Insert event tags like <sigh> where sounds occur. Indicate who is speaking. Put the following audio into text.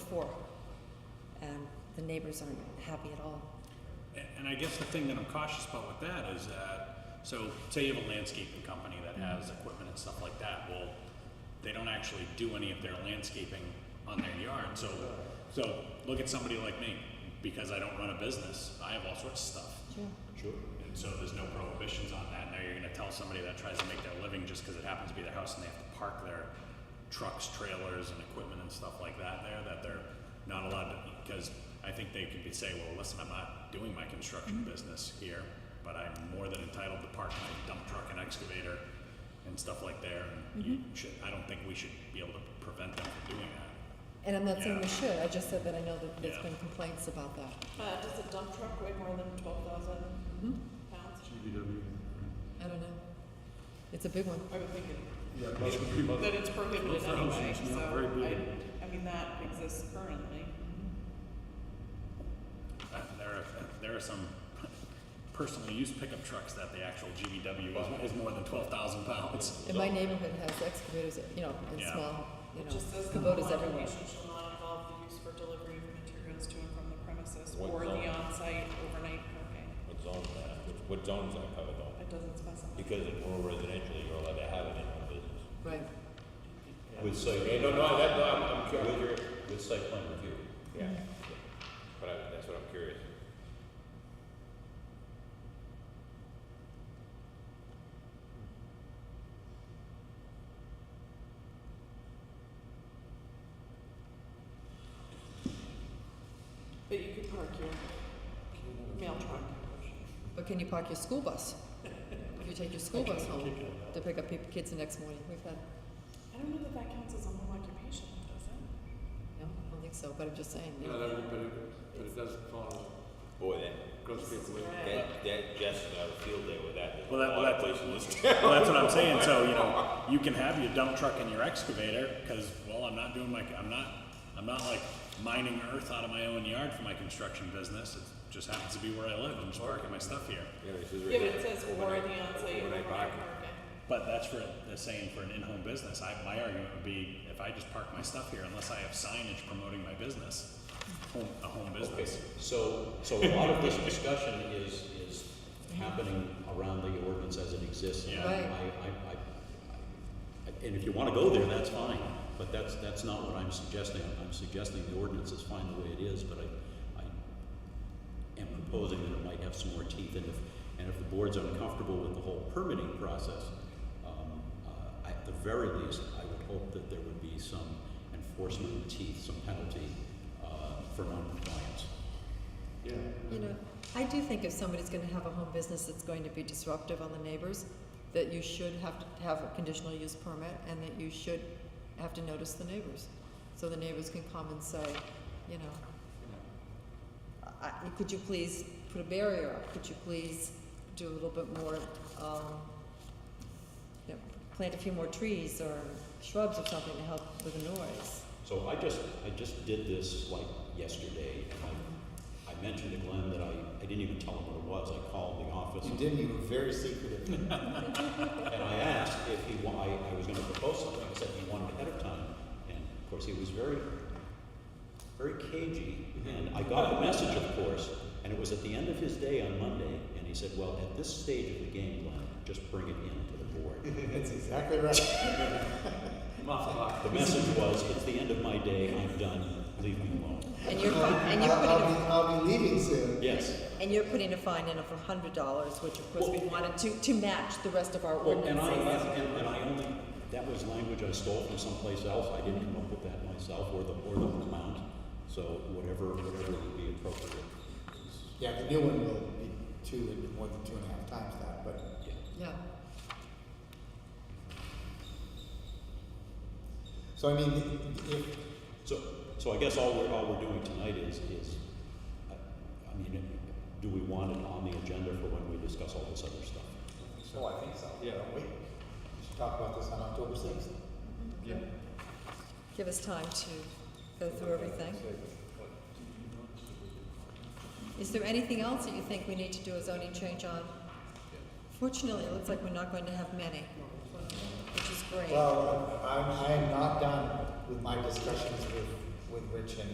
Speaker 1: before. And the neighbors aren't happy at all.
Speaker 2: A- And I guess the thing that I'm cautious about with that is that, so say you have a landscaping company that has equipment and stuff like that, well, they don't actually do any of their landscaping on their yard, so, so look at somebody like me, because I don't run a business, I have all sorts of stuff.
Speaker 1: Sure.
Speaker 2: Sure. And so there's no prohibitions on that, now you're gonna tell somebody that tries to make their living just because it happens to be their house and they have to park their trucks, trailers, and equipment and stuff like that there, that they're not allowed to, because I think they could be say, well, listen, I'm not doing my construction business here, but I'm more than entitled to park my dump truck and excavator and stuff like there, and you should, I don't think we should be able to prevent them from doing that.
Speaker 1: And I'm not saying we
Speaker 2: Yeah.
Speaker 1: should, I just said that I know that there's
Speaker 2: Yeah.
Speaker 1: been complaints about that.
Speaker 3: Uh, does a dump truck weigh more than twelve thousand pounds?
Speaker 4: GVW.
Speaker 1: I don't know. It's a big one.
Speaker 3: I would think it-
Speaker 4: Yeah, most people.
Speaker 3: that it's prohibited
Speaker 4: Most houses,
Speaker 3: anyway,
Speaker 4: not
Speaker 3: so
Speaker 4: very big.
Speaker 3: I, I mean, that exists currently.
Speaker 2: Uh, There are, there are some personal use pickup trucks that the actual GVW is, is more than twelve thousand pounds.
Speaker 1: And my neighborhood has excavators, you know, and
Speaker 2: Yeah.
Speaker 1: small, you
Speaker 3: It
Speaker 1: know,
Speaker 3: just says that the
Speaker 1: Kubotas
Speaker 3: law
Speaker 1: everywhere.
Speaker 3: application shall not involve the use for delivery of materials to and from the premises
Speaker 5: What
Speaker 3: or the
Speaker 5: zone?
Speaker 3: on-site overnight parking.
Speaker 5: What zone's that, Which- what zone's that covered though?
Speaker 3: It doesn't specify.
Speaker 5: Because in rural residential, you're allowed to have it in your business.
Speaker 1: Right.
Speaker 5: With site, yeah, no, no, that, no, I'm, I'm curious, with, with site plan review. Yeah. But I, that's what I'm curious.
Speaker 3: But you could park your mail truck.
Speaker 1: But can you park your school bus? If you
Speaker 2: <laughs>
Speaker 1: take your school bus home to pick up peop kids the next morning, we've had,
Speaker 3: I don't know that that counts as a home occupation, does it?
Speaker 1: no, I don't think so, but I'm just saying, you know.
Speaker 4: Not everybody, but it doesn't follow,
Speaker 5: Boy, that,
Speaker 4: goes people with.
Speaker 5: that, that Jess and I would feel there with that.
Speaker 2: Well, that, well, that, well, that's what I'm saying. So you know, you can have your dump truck and your excavator because well, I'm not doing my, I'm not, I'm not like mining earth out of my own yard for my construction business. It just happens to be where I live. I'm just parking my stuff here.
Speaker 5: <laughs> Yeah, this is right
Speaker 3: Yeah, but
Speaker 5: here.
Speaker 3: it says or
Speaker 5: Overnight-
Speaker 3: the on-site
Speaker 5: overnight
Speaker 3: overnight
Speaker 5: parking.
Speaker 3: parking.
Speaker 2: But that's for the saying for an in-home business. I, my argument would be if I just park my stuff here, unless I have signage promoting my business, home, a home
Speaker 6: Okay,
Speaker 2: business.
Speaker 6: so, so a lot of this discussion is, is happening around the ordinance as it exists. and
Speaker 2: Yeah.
Speaker 1: Right.
Speaker 6: I, I, I, I- and if you wanna go there, that's fine, but that's, that's not what I'm suggesting. I'm suggesting the ordinance is fine the way it is, but I, I am proposing that it might have some more teeth, and if, and if the board's uncomfortable with the whole permitting process, um, uh, at the very least, I would hope that there would be some enforcement teeth, some penalty, uh, for noncompliance.
Speaker 4: Yeah.
Speaker 1: You know, I do think if somebody's gonna have a home business that's going to be disruptive on the neighbors, that you should have to have a conditional use permit and that you should have to notice the neighbors. So the neighbors can come and say, you know, I, I- could you please put a barrier up? Could you please do a little bit more, um, you know, plant a few more trees or shrubs or something to help with the noise?
Speaker 6: So I just, I just did this like yesterday, and I, I mentioned to Glenn that I, I didn't even tell him what it was, I called the office.
Speaker 7: You didn't, you were very secretive. <laughs>
Speaker 6: And I asked if he, wa- I, I was gonna propose something, I said he wanted ahead of time, and of course, he was very, very cagey, and I got the message, of course, and it was at the end of his day on Monday, and he said, well, at this stage of the game, Glenn, just bring it in to the board.
Speaker 5: <laughs>
Speaker 7: That's exactly right.
Speaker 4: Muffler.
Speaker 6: The message was, it's the end of my day, I'm done, leave me alone.
Speaker 1: And you're, fi- and you're
Speaker 7: I'll-
Speaker 1: putting a
Speaker 7: I'll, be, I'll be leaving soon.
Speaker 6: Yes.
Speaker 1: And you're putting a fine in of a hundred dollars, which of course we wanted to, to match the rest of our
Speaker 6: Well, and I,
Speaker 1: ordinances.
Speaker 6: and, and I only, that was language I stole from someplace else, I didn't come up with that myself, or the, or the amount, so whatever, whatever would be appropriate.
Speaker 7: Yeah, the new one will be two and one to two and a half times that, but
Speaker 6: Yeah.
Speaker 1: Yeah,
Speaker 7: so I mean, if
Speaker 6: So, so I guess all we're, all we're doing tonight is, is, I, I mean, do we want it on the agenda for when we discuss all this other stuff?
Speaker 7: so, I think so. Yeah, we should talk about this on October sixth.
Speaker 4: Yeah.
Speaker 1: give us time to go through everything. Is there anything else that you think we need to do a zoning change on? Fortunately, it looks like we're not going to have many, which is great.
Speaker 7: Well, I'm, I am not done with my discussions with, with Rich and